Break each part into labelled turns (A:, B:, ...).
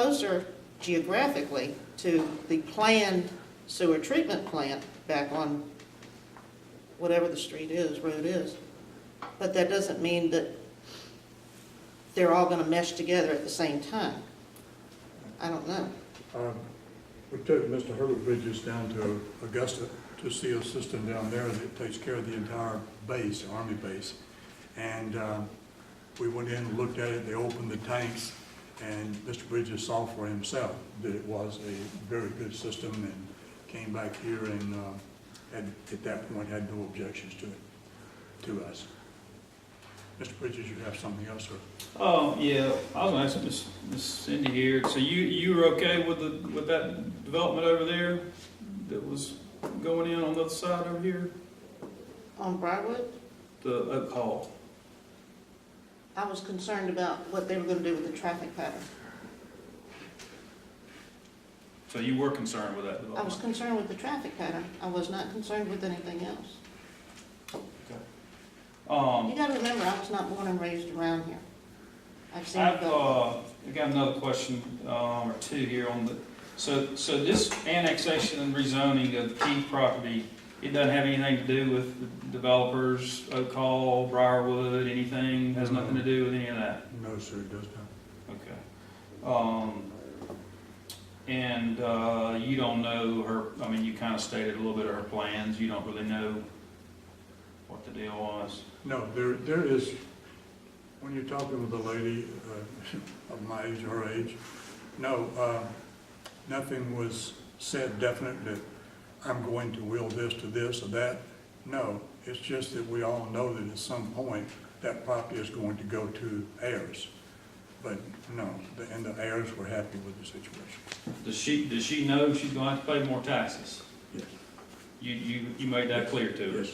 A: closer geographically to the planned sewer treatment plant back on whatever the street is, road is. But that doesn't mean that they're all gonna mesh together at the same time. I don't know.
B: Um, We took Mr. Herbert Bridges down to Augusta to see a system down there that takes care of the entire base, Army base. And um, we went in and looked at it, they opened the tanks, and Mr. Bridges saw for himself that it was a very good system and came back here and, um, had- at that point, had no objections to it, to us. Mr. Bridges, you have something else, sir?
C: Oh, yeah, I was gonna ask Miss Miss Cindy here, so you, you were okay with the, with that development over there that was going in on the other side over here,
A: On Briarwood,
C: the Oak Hall?
A: I was concerned about what they were gonna do with the traffic pattern.
C: So you were concerned with that
A: I was
C: development?
A: concerned with the traffic pattern. I was not concerned with anything else. You
C: Um,
A: gotta remember, I was not born and raised around here. I've seen it
C: I've,
A: go.
C: uh, I've got another question, um, or two here on the, so, so this annexation and rezoning of the Key property, it doesn't have anything to do with the developers, Oak Hall, Briarwood, anything, has nothing to do with any of that?
B: No, sir, it does not.
C: Okay. Um, and, uh, you don't know her, I mean, you kinda stated a little bit of her plans, you don't really know what the deal was.
B: No, there, there is, when you're talking with a lady uh, of my age, her age, no, uh, nothing was said definite that I'm going to will this to this or that. No, it's just that we all know that at some point, that property is going to go to heirs. But no, the- and the heirs were happy with the situation.
C: Does she, does she know she's gonna have to pay more taxes?
B: Yes.
C: You, you, you made that clear to her?
B: Yes,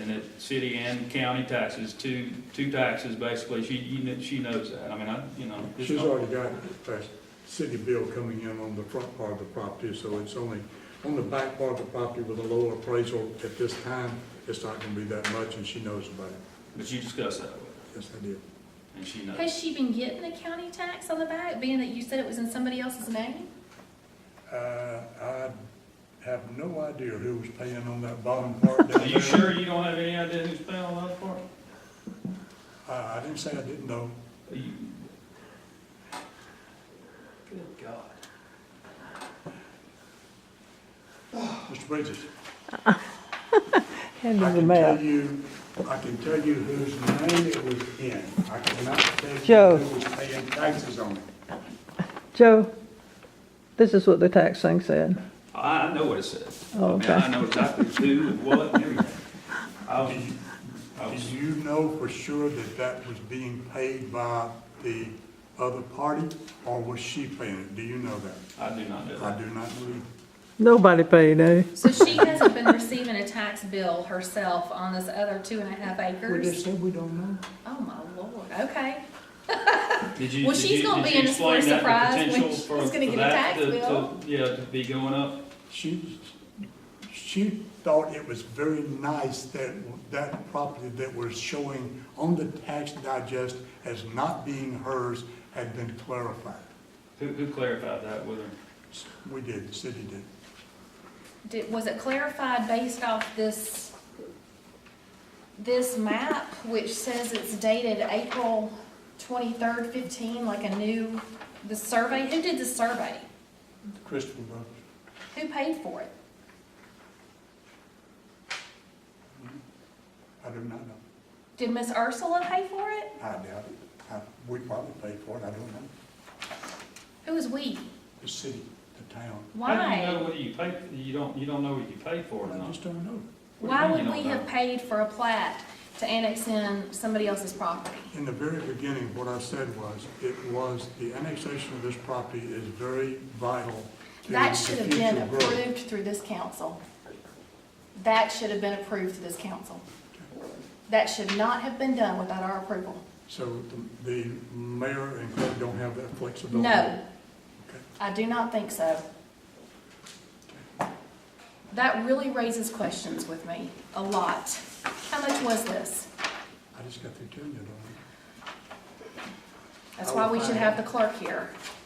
C: And that city and county taxes, two, two taxes, basically, she, you kn she knows that, I mean, I, you know. it's
B: She's
C: not-
B: already got a city bill coming in on the front part of the property, so it's only, on the back part of the property with a lower appraisal at this time, it's not gonna be that much, and she knows about it.
C: But you discussed that with her,
B: Yes, I did.
C: and she knows.
D: Has she been getting the county tax on the back, being that you said it was in somebody else's name?
B: Uh, I have no idea who was paying on that bottom part down
C: Are you
B: there.
C: sure you don't have any idea who's paying all that part?
B: I, I didn't say I didn't know.
C: You- Good God.
B: Mr. Bridges?
E: Hand
B: I
E: him the
B: can tell
E: map.
B: you, I can tell you whose name it was in. I cannot tell you
E: Joe.
B: who was paying taxes on it.
E: Joe, this is what the tax thing said.
C: I I know what it says. I
E: Oh,
C: mean, I
E: okay.
C: know exactly who and what and everything. I was, I was,
B: Do you know for sure that that was being paid by the other party, or was she paying it? Do you know that?
C: I do not know
B: I
C: that.
B: do not believe.
E: Nobody paid, eh?
D: So she hasn't been receiving a tax bill herself on this other two and a half acres?
B: said we don't know.
D: Oh, my lord, okay.
C: Did you,
D: Well,
C: did
D: she's
C: you,
D: gonna
C: did
D: be
C: you
D: in a
C: explain
D: sort of
C: that,
D: surprise
C: the
D: when
C: potential
D: she's
C: for,
D: gonna
C: for
D: get a
C: that
D: tax
C: to, to,
D: bill.
C: yeah, to be going up?
B: She, she thought it was very nice that that property that was showing on the tax digest as not being hers had been clarified.
C: Who, who clarified that with her?
B: We did, the city did.
D: Did, was it clarified based off this, this map, which says it's dated April twenty-third fifteen, like a new, the survey? Who did the survey?
B: Christopher Brothers.
D: Who paid for it?
B: I do not know.
D: Did Miss Ursula pay for it?
B: I doubt it. I- We probably paid for it, I don't know.
D: Who is we?
B: The city, the town.
C: How do you know
D: Why?
C: whether you paid, you don't, you don't know what you paid for or
B: I
C: not?
B: just don't know.
C: What do you
D: Why
C: mean you
D: would
C: don't
D: we have
C: know?
D: paid for a plat to annex in somebody else's property?
B: In the very beginning, what I said was, it was, the annexation of this property is very vital to
D: That
B: the
D: should have been
B: future growth.
D: approved through this council. That should have been approved through this council. That should not have been done without our approval.
B: So the- the mayor and clerk don't have that flexibility?
D: No,
B: Okay.
D: I do not think so. That really raises questions with me, a lot. How much was this?
B: I just got through telling you, don't
D: That's why we should have the clerk here.
B: I?